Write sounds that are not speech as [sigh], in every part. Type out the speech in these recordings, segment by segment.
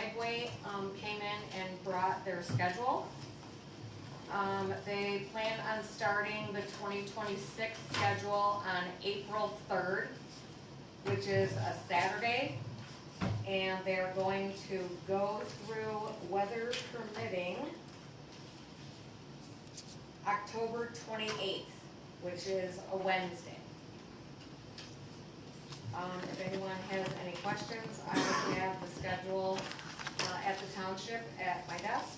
Dragway, um, came in and brought their schedule. Um, they plan on starting the twenty twenty-six schedule on April third, which is a Saturday. And they're going to go through weather permitting October twenty-eighth, which is a Wednesday. Um, if anyone has any questions, I have the schedule, uh, at the township at my desk.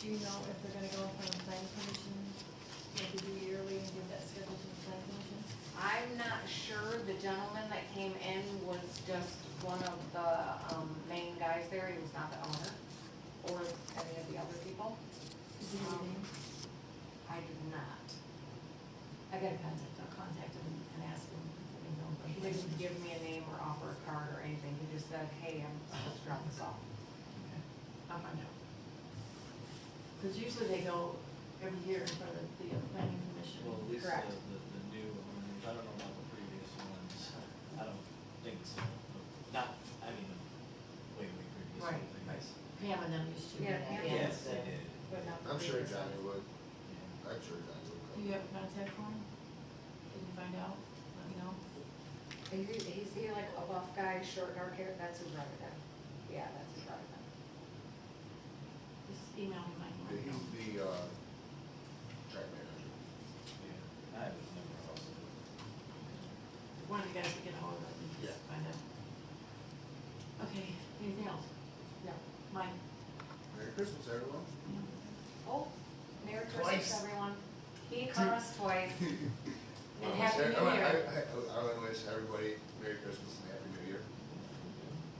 Do you know if they're gonna go in front of the planning commission, maybe do yearly and give that schedule to the planning commission? I'm not sure, the gentleman that came in was just one of the, um, main guys there, he was not the owner, or any of the other people. Is it Um, evening? I did not. I got a contact, I'll contact him and ask him if they know. He didn't give me a name or offer a card or anything, he just said, hey, I'm supposed to drop this off. I'll find out. Cause usually they go every year in front of the planning commission. Well, at least the, Correct. the, the new owners, I don't know about the previous ones, I don't think so. Not, I mean, way, way previous Right, ones, I guess. Pam and them used to. do Yeah, that. Pam Yeah, and- Yes, it's, they uh, did. But not the I'm sure previous Johnny ones. would, Yeah. I'm sure Johnny would Do come. you have a contact for him? Can you find out? Let me know. Is he, is he like a buff guy, short dark hair, that's his brother then? Yeah, that's his brother then. Just email him, I can let you Yeah, know. He's the, uh, track manager. Yeah, I was never also. One of you guys will get hold of him, Yeah. just find out. Okay, anything else? No. Mike? Merry Christmas, everyone. Oh, Merry Twice. Christmas, everyone. He caught us [laughs] twice. Well, I Happy wish- I- New I- Year. I, I, I wanna wish everybody Merry Christmas and Happy New Year.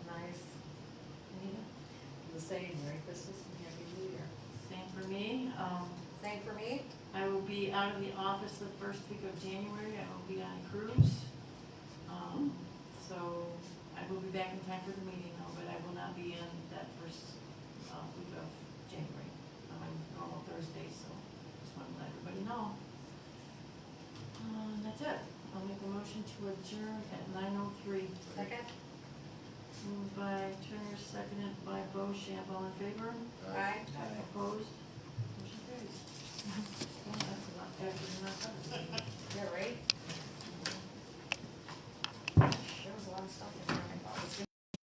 Nice. Anita? The same, Merry Christmas and Happy New Year. Same for me, um, Same for me? I will be out of the office the first week of January, I will be on a cruise. Um, so I will be back in time for the meeting though, but I will not be in that first, uh, week of January. I'm on normal Thursday, so just wanted to let everybody know. Um, that's it, I'll make a motion to adjourn at nine oh three. Second? Moved by Turner, seconded by Bo Shambo, in favor? Uh, Aye. [laughs]